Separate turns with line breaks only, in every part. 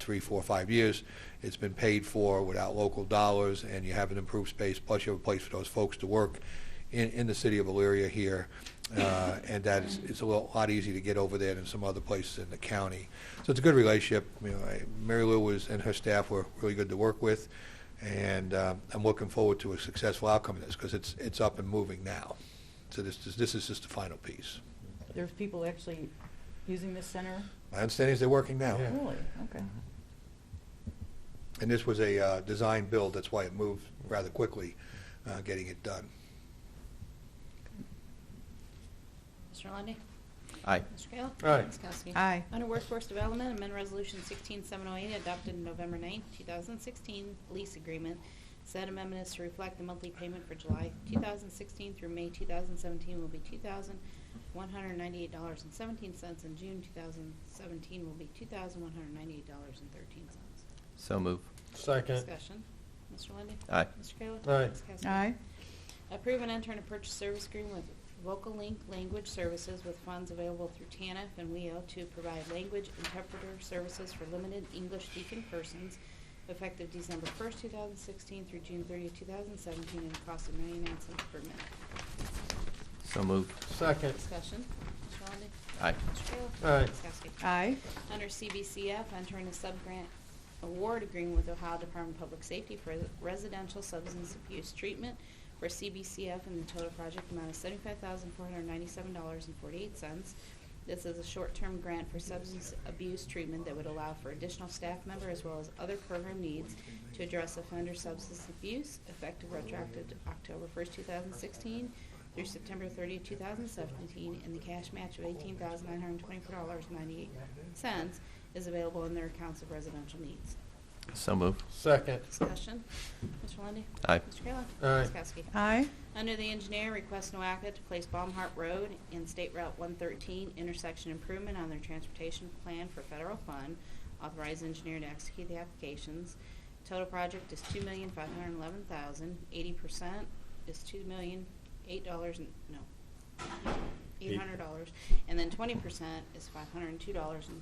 three, four, five years. It's been paid for without local dollars, and you have an improved space, plus you have a place for those folks to work in, in the city of Elyria here. Uh, And that is, it's a little- lot easier to get over there than some other places in the county. So it's a good relationship. You know, I- Mary Lou was, and her staff were really good to work with, and uh, I'm looking forward to a successful outcome of this, because it's, it's up and moving now. So this, is- this is just the final piece.
There's people actually using this center?
My understanding is they're working now.
Yeah.
Really? Okay.
And this was a uh, design build, that's why it moved rather quickly, uh, getting it done.
Mr. Lundy,
Aye.
Mr. Kayla?
Aye.
Ms. Kowski?
Aye.
Under Workforce Development, amend Resolution 16708 adopted November 9, 2016 lease agreement. Said amendment is to reflect the monthly payment for July 2016 through May 2017 will be $2,198.17, and June 2017 will be $2,198.13.
So move.
Second.
Discussion. Mr. Lundy,
Aye.
Mr. Kayla?
Aye.
Ms. Kowski?
Aye.
Approve and enter a purchase service agreement with Vocal Link Language Services with funds available through TANF and WEO to provide language interpreter services for limited English speaking persons effective December 1st, 2016 through June 30th, 2017 at a cost of 99 cents per minute.
So move.
Second.
Discussion. Mr. Lundey.
Aye.
Mr. Kayla.
Aye.
Ms. Kowski.
Aye.
Under CBCF, entering a subgrant award agreement with Ohio Department of Public Safety for residential substance abuse treatment for CBCF in the total project amount of $75,497.48. This is a short-term grant for substance abuse treatment that would allow for additional staff member as well as other program needs to address offender substance abuse effective retroactive to October 1st, 2016 through September 30th, 2017, and the cash match of $18,924.98 is available in their accounts of residential needs.
So move.
Second.
Discussion. Mr. Lundey.
Aye.
Mr. Kayla.
Aye.
Ms. Kowski.
Aye.
Under the engineer, request NOACA to place Baumhart Road and State Route 113 intersection improvement on their transportation plan for federal fund. Authorize engineer to execute the applications. Total project is $2,511,000. 80% is $2,008, and- no, $800. And then 20% is $502, and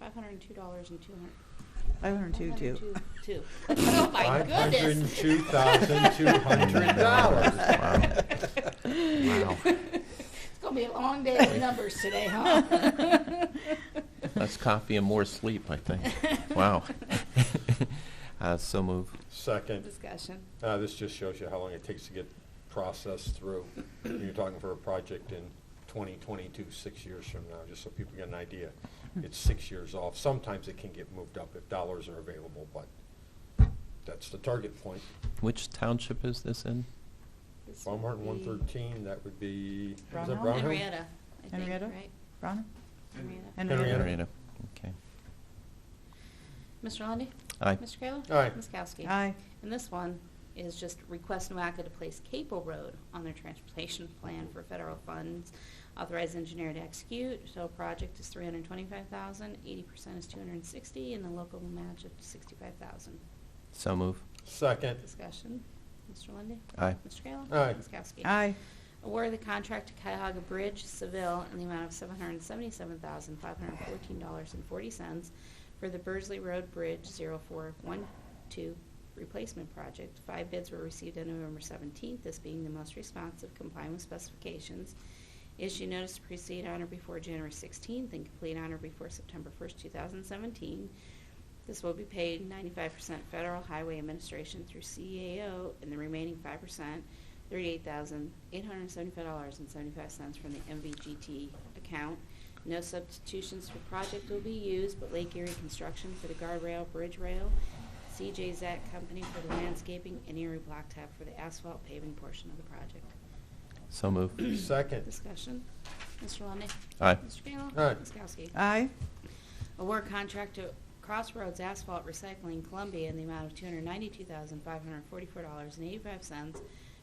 $502 and 200.
Five hundred two, two.
502. Oh, my goodness.
$502,200.
Wow.
It's going to be a long day of numbers today, huh?
That's coffee and more sleep, I think. Wow. Uh, So move.
Second.
Discussion.
Uh, This just shows you how long it takes to get processed through. You're talking for a project in 2022, six years from now, just so people get an idea. It's six years off. Sometimes it can get moved up if dollars are available, but that's the target point.
Which township is this in?
This would
Baumhart
be
113, that would be, is that
Brownhill?
Brownhill?
Henrietta, I think,
Henrietta?
right?
Rhonda?
Henrietta.
Henrietta.
Henrietta.
Okay.
Mr. Lundy.
Aye.
Mr. Kayla?
Aye.
Ms. Kowski?
Aye.
And this one is just request NOACA to place Capel Road on their transportation plan for federal funds. Authorized engineer to execute. Total project is three hundred twenty-five thousand. Eighty percent is two hundred and sixty, and the local match of sixty-five thousand.
So move.
Second.
Discussion. Mr. Lundy.
Aye.
Mr. Kayla?
Aye.
Ms. Kowski?
Aye.
Award the contract to Cuyahoga Bridge Seville in the amount of seven hundred seventy-seven thousand, five hundred fourteen dollars and forty cents for the Burzley Road Bridge 0412 replacement project. Five bids were received on November seventeenth, this being the most responsive, complying with specifications. Issue notice to proceed on or before January sixteenth and complete on or before September first, two thousand seventeen. This will be paid ninety-five percent Federal Highway Administration through CAO, and the remaining five percent, thirty-eight thousand, eight hundred and seventy-five dollars and seventy-five cents from the MVGT account. No substitutions for project will be used, but Lake Erie Construction for the guardrail, bridge rail, CJ Zack Company for the landscaping, and Erie Blacktop for the asphalt paving portion of the project.
So move.
Second.
Discussion, Mr. Lundey.
Aye.
Mr. Kayla.
Aye.
Ms. Kowski.
Aye.
Award contract to Crossroads Asphalt Recycling Columbia in the amount of two hundred ninety-two thousand, five hundred forty-four dollars and eighty-five cents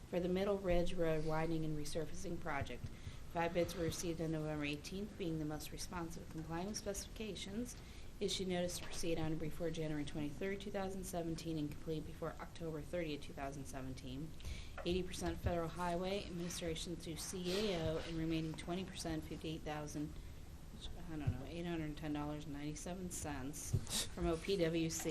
for the Middle Ridge Road widening and resurfacing project. Five bids were received on November eighteenth, being the most responsive complying with specifications. Issue notice to proceed on or before January twenty-third, two thousand seventeen, and complete before October thirtieth, two thousand seventeen. Eighty percent Federal Highway Administration through CAO, and remaining twenty percent, fifty-eight thousand, uh, I don't know, eight hundred and ten dollars and ninety-seven cents from OPWC